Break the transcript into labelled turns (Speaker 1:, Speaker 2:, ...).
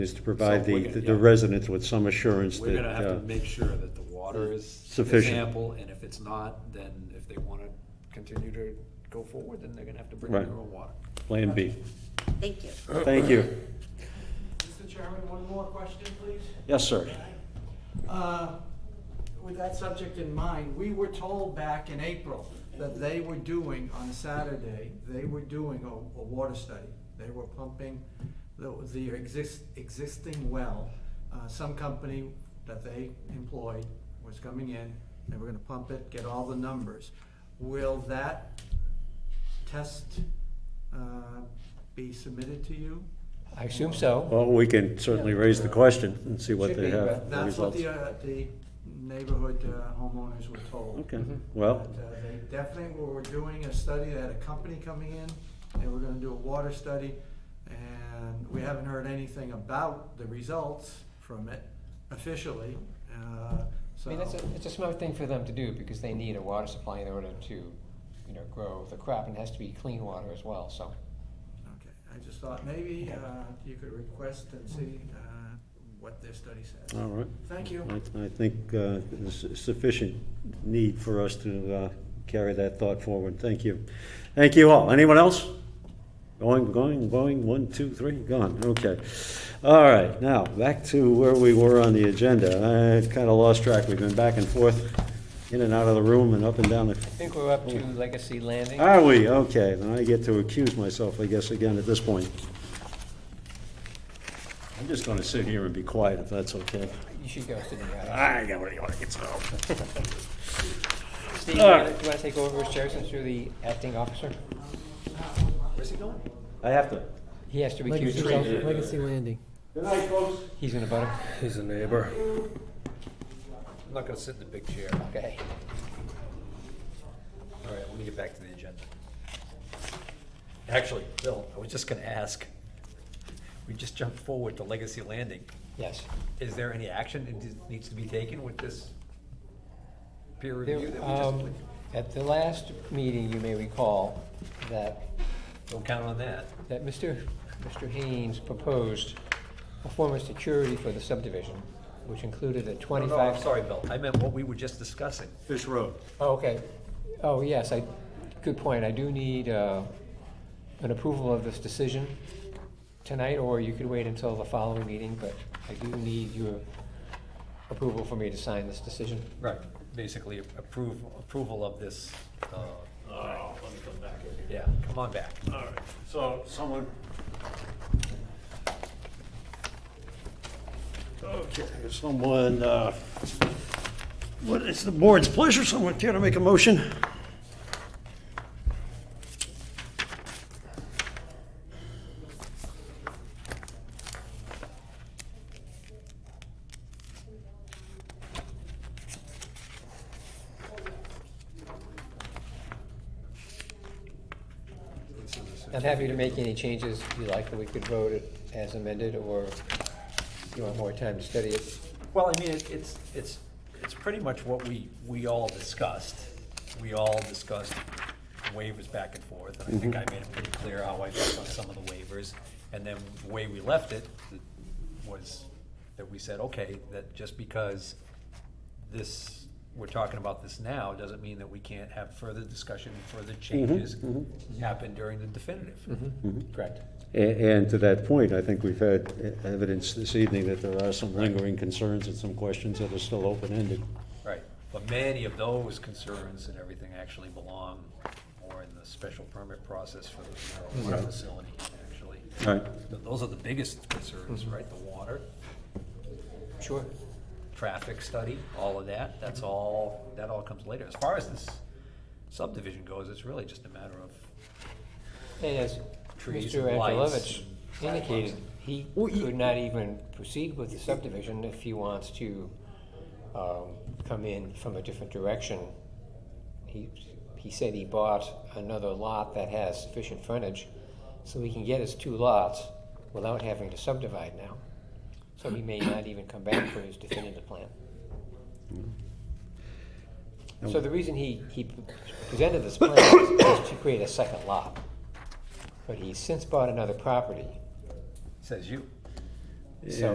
Speaker 1: is to provide
Speaker 2: So we're
Speaker 1: the,
Speaker 2: gonna-
Speaker 1: the
Speaker 2: yeah.
Speaker 1: residents with some assurance
Speaker 2: We're
Speaker 1: that,
Speaker 2: gonna have
Speaker 1: uh,
Speaker 2: to make sure that the water is
Speaker 1: Sufficient.
Speaker 2: Sample, and if it's not, then if they wanna continue to go forward, then they're gonna have to bring
Speaker 1: Right.
Speaker 2: in their own water.
Speaker 1: Plan B.
Speaker 3: Thank you.
Speaker 1: Thank you.
Speaker 4: Mr. Chairman, one more question, please.
Speaker 1: Yes, sir.
Speaker 4: Uh, With that subject in mind, we were told back in April that they were doing, on Saturday, they were doing a, a water study. They were pumping the, the exist, existing well. Uh, Some company that they employed was coming in, they were gonna pump it, get all the numbers. Will that test uh, be submitted to you?
Speaker 5: I assume so.
Speaker 1: Well, we can certainly raise the question and see what
Speaker 5: Should
Speaker 1: they
Speaker 5: be,
Speaker 1: have,
Speaker 5: but
Speaker 1: the
Speaker 4: That's what
Speaker 1: results.
Speaker 4: the, uh, the neighborhood uh, homeowners were told.
Speaker 1: Okay,
Speaker 5: Mm-hmm.
Speaker 1: well,
Speaker 4: But, uh, They definitely were doing a study, they had a company coming in, they were gonna do a water study, and we haven't heard anything about the results from it officially, uh,
Speaker 5: I
Speaker 4: so.
Speaker 5: mean, it's a, it's a smart thing for them to do because they need a water supply in order to, you know, grow the crop and it has to be clean water as well, so.
Speaker 4: Okay, I just thought maybe, uh, you could request and see, uh, what their study says.
Speaker 1: all right.
Speaker 4: Thank you.
Speaker 1: I I think uh, there's sufficient need for us to uh, carry that thought forward. Thank you. Thank you all. Anyone else? Going, going, going, one, two, three, gone. Okay. All right, now, back to where we were on the agenda. I kind of lost track. We've been back and forth, in and out of the room and up and down the
Speaker 5: I think we're up to Legacy Landing.
Speaker 1: Are we? Okay, then I get to accuse myself, I guess, again at this point. I'm just gonna sit here and be quiet if that's okay.
Speaker 5: You should go sit in the uh, audience.
Speaker 1: I got what you wanna get to.
Speaker 5: Steve, you wanna- you wanna take over as chair since you're the acting officer?
Speaker 2: Where's he going?
Speaker 1: I have to.
Speaker 5: He has to recuse himself.
Speaker 6: Legacy Landing.
Speaker 1: Good night, folks.
Speaker 5: He's in a butter.
Speaker 6: He's a neighbor.
Speaker 2: I'm not gonna sit in the big chair.
Speaker 5: Okay.
Speaker 2: All right, let me get back to the agenda. Actually, Bill, I was just gonna ask, we just jumped forward to Legacy Landing.
Speaker 5: Yes.
Speaker 2: Is there any action that needs to be taken with this peer
Speaker 5: There-
Speaker 2: review that we
Speaker 5: um,
Speaker 2: just?
Speaker 5: At the last meeting, you may recall that
Speaker 2: Don't count on that.
Speaker 5: that Mr. Mr. Haynes proposed a form of security for the subdivision, which included a
Speaker 2: No,
Speaker 5: twenty-five.
Speaker 2: no, I'm sorry, Bill, I meant what we were just discussing.
Speaker 1: Fish Road.
Speaker 5: Oh, okay. Oh, yes, I, good point. I do need uh, an approval of this decision tonight, or you could wait until the following meeting, but I do need your approval for me to sign this decision.
Speaker 2: Right, basically approve, approval of this, uh,
Speaker 7: All right,
Speaker 1: Oh,
Speaker 7: let me come back in here.
Speaker 2: yeah, come on back.
Speaker 7: All right, so someone.
Speaker 1: Okay, someone, uh, what is the board's pleasure? Someone care to make a motion?
Speaker 5: I'm happy to make any changes you like, that we could vote it as amended, or if you want more time to study it.
Speaker 2: Well, I mean, it- it's, it's, it's pretty much what we, we all discussed. We all discussed waivers back and forth, and I think I made it pretty clear how I felt on some of the waivers. And then the way we left it was that we said, okay, that just because this, we're talking about this now, doesn't mean that we can't have further discussion, further changes happen during the definitive.
Speaker 1: Mm-hmm.
Speaker 5: Correct.
Speaker 1: A- And to that point, I think we've had e- evidence this evening that there are some lingering concerns and some questions that are still open-ended.
Speaker 2: Right, but many of those concerns and everything actually belong more in the special permit process for the marijuana facility, actually.
Speaker 1: All right,
Speaker 2: Th- Those are the biggest concerns, right? The water,
Speaker 5: Sure.
Speaker 2: traffic study, all of that, that's all, that all comes later. As far as this subdivision goes, it's really just a matter of,
Speaker 5: And as
Speaker 2: Trees
Speaker 5: Mr.
Speaker 2: and lights
Speaker 5: Angelovich
Speaker 2: and
Speaker 5: indicated, he could not even proceed with the subdivision if he wants to um, come in from a different direction. He, he said he bought another lot that has sufficient frontage, so he can get his two lots without having to subdivide now. So he may not even come back for his definitive plan. So the reason he, he presented this plan is to create a second lot. But he's since bought another property,
Speaker 2: says you.
Speaker 5: So